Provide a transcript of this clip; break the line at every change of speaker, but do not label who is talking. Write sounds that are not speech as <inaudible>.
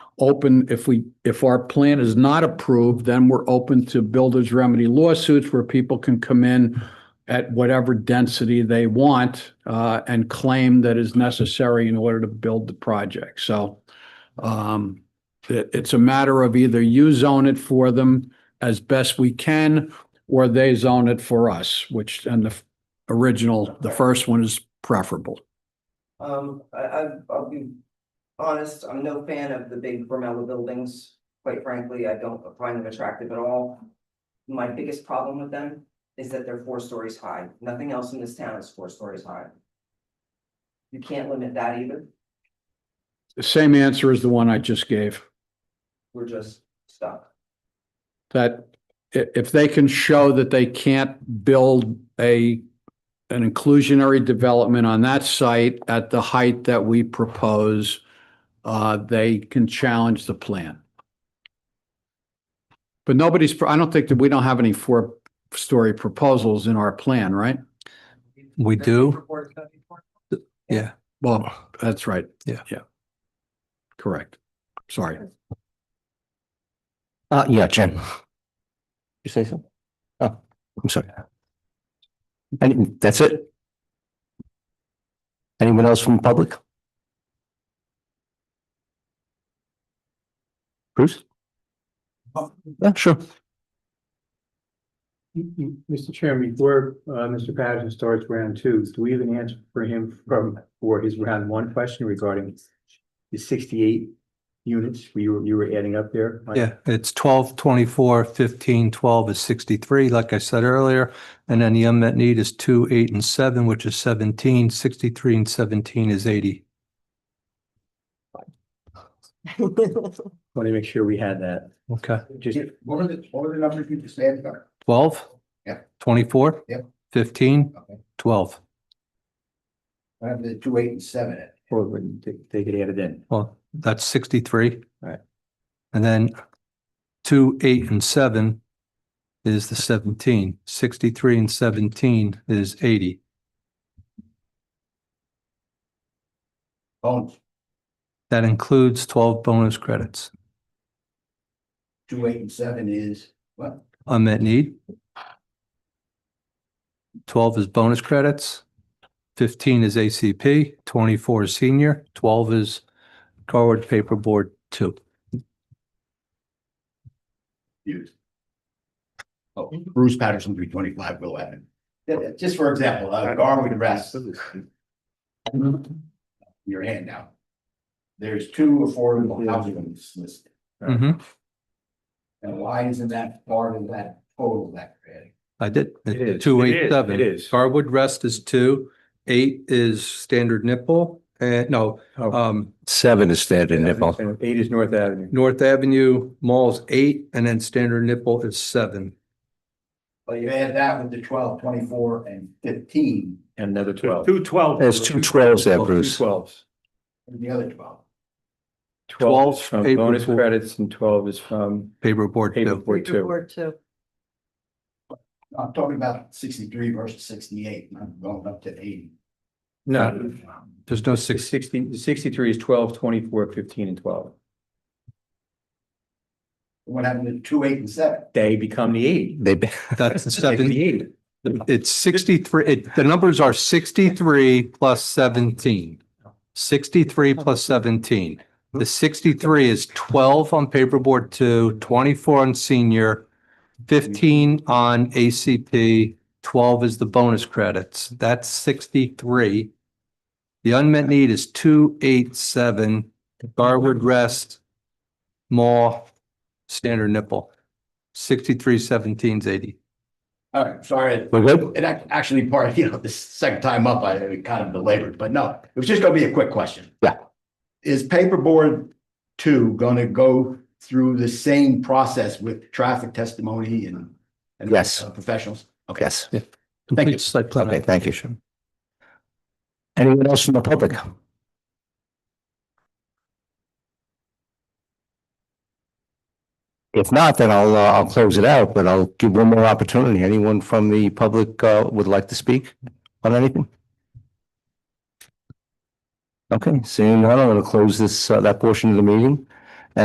open, if we, if our plan is not approved, then we're open to builders remedy lawsuits where people can come in at whatever density they want uh, and claim that is necessary in order to build the project. So um, it, it's a matter of either you zone it for them as best we can, or they zone it for us, which, and the original, the first one is preferable.
Um, I, I, I'll be honest, I'm no fan of the big Brumella buildings. Quite frankly, I don't find them attractive at all. My biggest problem with them is that they're four stories high. Nothing else in this town is four stories high. You can't limit that either.
The same answer as the one I just gave,
We're just stuck.
that i- if they can show that they can't build a an inclusionary development on that site at the height that we propose, uh, they can challenge the plan. But nobody's, I don't think that we don't have any four-story proposals in our plan, right?
We do, yeah.
Well, that's right.
Yeah.
Yeah. Correct. Sorry.
Uh, yeah, Jen. You say so? Oh, I'm sorry. And that's it? Anyone else from the public? Bruce? Yeah, sure.
Mm, mm, Mr. Chairman, before uh, Mr. Patterson starts round two, do we have an answer for him from, for his round one question regarding the sixty-eight units you were, you were adding up there? Mike?
Yeah, it's 12, 24, 15, 12 is 63, like I said earlier. And then the unmet need is 2, 8, and 7, which is 17, 63 and 17 is 80.
Want to make sure we had that.
Okay,
Just,
What were the, what were the numbers you just added up?
12?
Yeah.
24?
Yeah.
15?
Okay.
12.
I have the two, eight, and seven. in.
or when they- they could add it in.
Well, that's 63.
Right.
And then 2, 8, and 7 is the 17. 63 and 17 is 80.
Bones,
That includes 12 bonus credits.
two, eight, and seven is, what?
unmet need. Twelve is bonus credits, fifteen is ACP, twenty-four is senior, twelve is Garwood paperboard two.
Used. Oh, Bruce Patterson, three twenty-five, Will Avenue. Yeah, yeah, Just for example, uh, Garwood Rest. Your hand now. There's two affordable housing units listed.
Mhm,
And why isn't that part of that total that you're adding?
I did.
It is,
Two
it
eight
is,
seven.
it is.
Garwood rest is two, eight is standard nipple, and no,
Oh.
um,
Seven is standard nipple.
Eight is North Avenue.
North Avenue Mall's eight, and then standard nipple is seven.
Well, you add that with the twelve, twenty-four, and fifteen,
And another twelve.
Two twelve.
There's two trails there, Bruce.
Twelves.
and the other twelve.
Twelve is from
April
bonus
four.
credits and twelve is from
Paperboard two.
paperboard two.
I'm talking about sixty-three versus sixty-eight, and I'm going up to eighty.
No,
There's no
the
six,
sixty, the sixty-three is twelve, twenty-four, fifteen, and twelve.
What happened to two, eight, and seven?
They become the eight.
They,
that's
<laughs>
the
They
seven.
created it.
It's sixty-three, it, the numbers are sixty-three plus seventeen. Sixty-three plus seventeen. The sixty-three is twelve on paperboard two, twenty-four on senior, fifteen on ACP, twelve is the bonus credits. That's sixty-three. The unmet need is two, eight, seven, Garwood Rest, Mall, Standard Nipple. Sixty-three seventeen's eighty.
All right, sorry.
<laughs> we're good?
It ac- actually part, you know, the second time up, I it kind of belabored, but no, it was just gonna be a quick question.
Yeah.
Is paperboard two gonna go through the same process with traffic testimony and? and uh,
Yes.
Professionals? Okay.
Yes.
Thank you.
Complete site plan.
Okay, thank you, Sean. Anyone else from the public? If not, then I'll, uh, I'll close it out, but I'll give one more opportunity. Anyone from the public, uh, would like to speak on anything? Okay, seeing none, I'm going to close this, uh, that portion of the meeting.